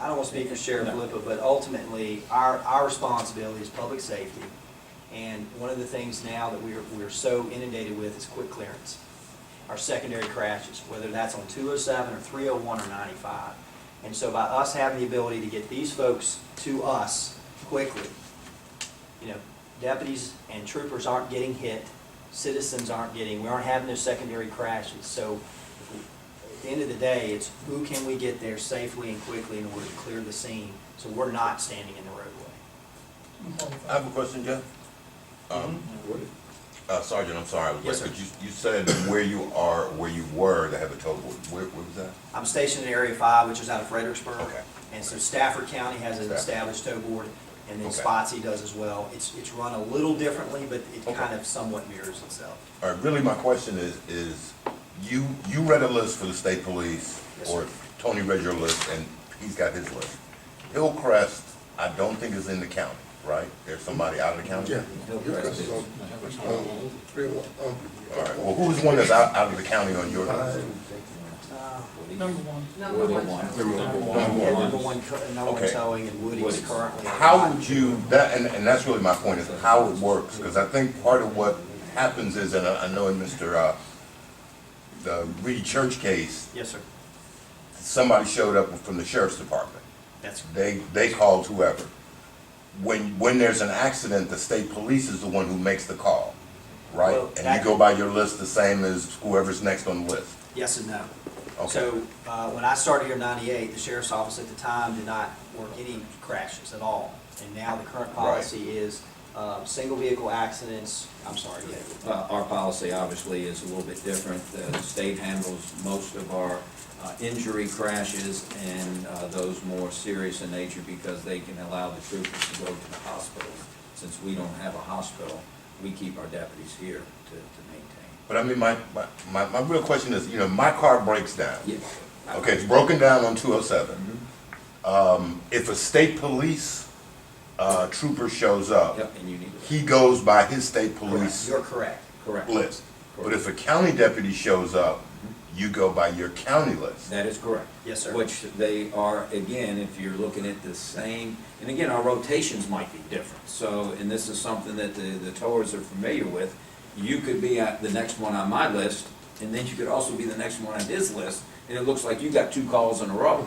I don't want to speak for Sheriff Lipa, but ultimately, our, our responsibility is public safety. And one of the things now that we're, we're so inundated with is quick clearance. Our secondary crashes, whether that's on two oh seven or three oh one or ninety-five. And so by us having the ability to get these folks to us quickly, you know, deputies and troopers aren't getting hit, citizens aren't getting, we aren't having those secondary crashes. So at the end of the day, it's who can we get there safely and quickly in order to clear the scene, so we're not standing in the roadway. I have a question, Jeff. Um, uh, Sergeant, I'm sorry, I was Yes, late, sir. but you, you said where you are, where you were to have a tow board. Where, where was that? I'm stationed in Area Five, which is out of Fredericksburg. Okay. And so Stafford County has an Stafford. established tow board, and then Okay. Spotsy does as well. It's, it's run a little differently, but it Okay. kind of somewhat mirrors itself. All right, really, my question is, is you, you read a list for the state police, Yes, or sir. Tony read your list, and he's got his list. Hillcrest, I don't think is in the county, right? There's somebody out of the county? Yeah. Hillcrest Hillcrest on, on, three oh one, All right, well, who's one that's out, out of the county on your um, list? five, Uh, Number one. Number one. Yeah, Number one, co- number one Okay. towing, and Woody's Woody's. currently. How would you, that, and, and that's really my point, is how it works, because I think part of what happens is, and I, I know in Mr., uh, the Reedy Church case, Yes, sir. somebody showed up from the sheriff's department. That's, They, they called whoever. When, when there's an accident, the state police is the one who makes the call, right? Well, And that- you go by your list the same as whoever's next on the list. yes and no. Okay, So, uh, when I started here in ninety-eight, the sheriff's office at the time did not work any crashes at all. And now the current policy is, uh, single vehicle accidents, I'm sorry, yeah, Uh, Our policy obviously is a little bit different. The state handles most of our uh, injury crashes and uh, those more serious in nature because they can allow the troopers to go to the hospital. Since we don't have a hospital, we keep our deputies here to to maintain. but I mean, my, my, my, my real question is, you know, my car breaks down. Yeah. Okay, it's broken down on two oh seven. Um, if a state police, uh, trooper shows up, Yep, and you need to, he goes by his state correct. police you're correct. correct. list. But Correct. if a county deputy shows up, you go by your county list. That is correct. Yes, sir. Which they are, again, if you're looking at the same, and again, our rotations might be different. So, and this is something that the, the towers are familiar with. You could be at the next one on my list, and then you could also be the next one on his list, and it looks like you got two calls in a row.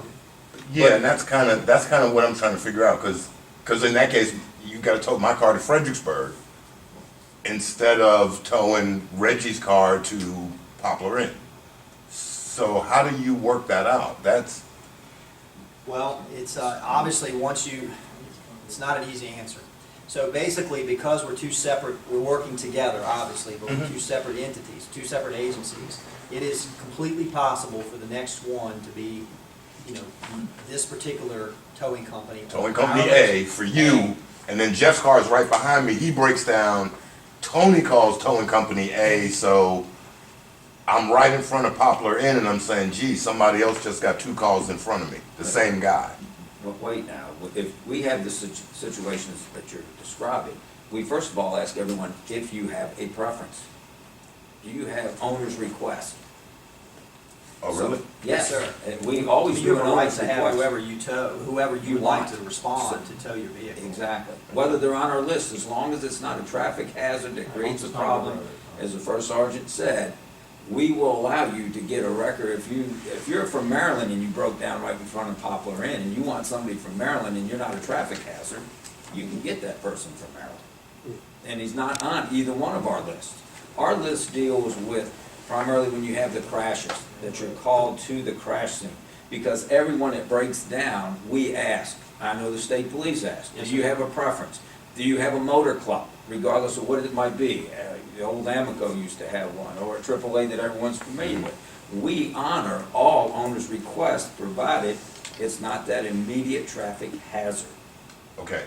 Yeah, and that's kind of, that's kind of what I'm trying to figure out, because, in that case, you gotta tow my car to Fredericksburg instead of towing Reggie's car to Poplar Inn. So how do you work that out? That's, Well, it's, uh, obviously, once you, it's not an easy answer. So basically, because we're two separate, we're working together, obviously, but we're two separate entities, two separate agencies, it is completely possible for the next one to be, you know, this particular towing company. Towing company A for you, and then Jeff's car is right behind me. He breaks down. Tony calls towing company A, so I'm right in front of Poplar Inn, and I'm saying, "Gee, somebody else just got two calls in front of me. The same guy." But wait now, if we have the situ- situations that you're describing, we first of all ask everyone if you have a preference. Do you have owner's request? Oh, So- really? Yes, Yes, sir. sir. We always You do have an a right owner's to have request. whoever you tow, whoever you You like want. to respond to tow your vehicle. Exactly. Whether they're on our list, as long as it's not a traffic hazard that creates a problem, as the first sergeant said, we will allow you to get a record. If you, if you're from Maryland and you broke down right in front of Poplar Inn and you want somebody from Maryland and you're not a traffic hazard, you can get that person from Maryland. And he's not on either one of our lists. Our list deals with primarily when you have the crashes, that you're called to the crash scene. Because everyone that breaks down, we ask, I know the state police ask, Yes, do you sir. have a preference? Do you have a motor club, regardless of what it might be? Uh, The old Amoco used to have one, or a AAA that everyone's familiar with. We honor all owners' requests, provided it's not that immediate traffic hazard. Okay.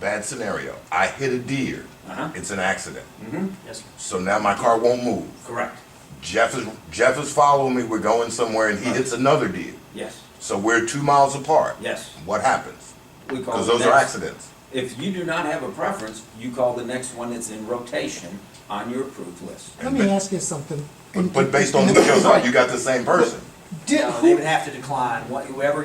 Bad scenario. I hit a deer. Uh-huh. Mm-hmm. It's an accident. Yes, sir. So now my car won't move. Correct. Jeff is Jeff is following me. We're going somewhere, and he hits another deer. Yes, So we're two miles apart. yes. What happens? We call Because the those are next- accidents. If you do not have a preference, you call the next one that's in rotation on your approved list. Let me ask you something. But, but based on who shows up, you got the same person. Did, No, They who would have to decline, What- whoever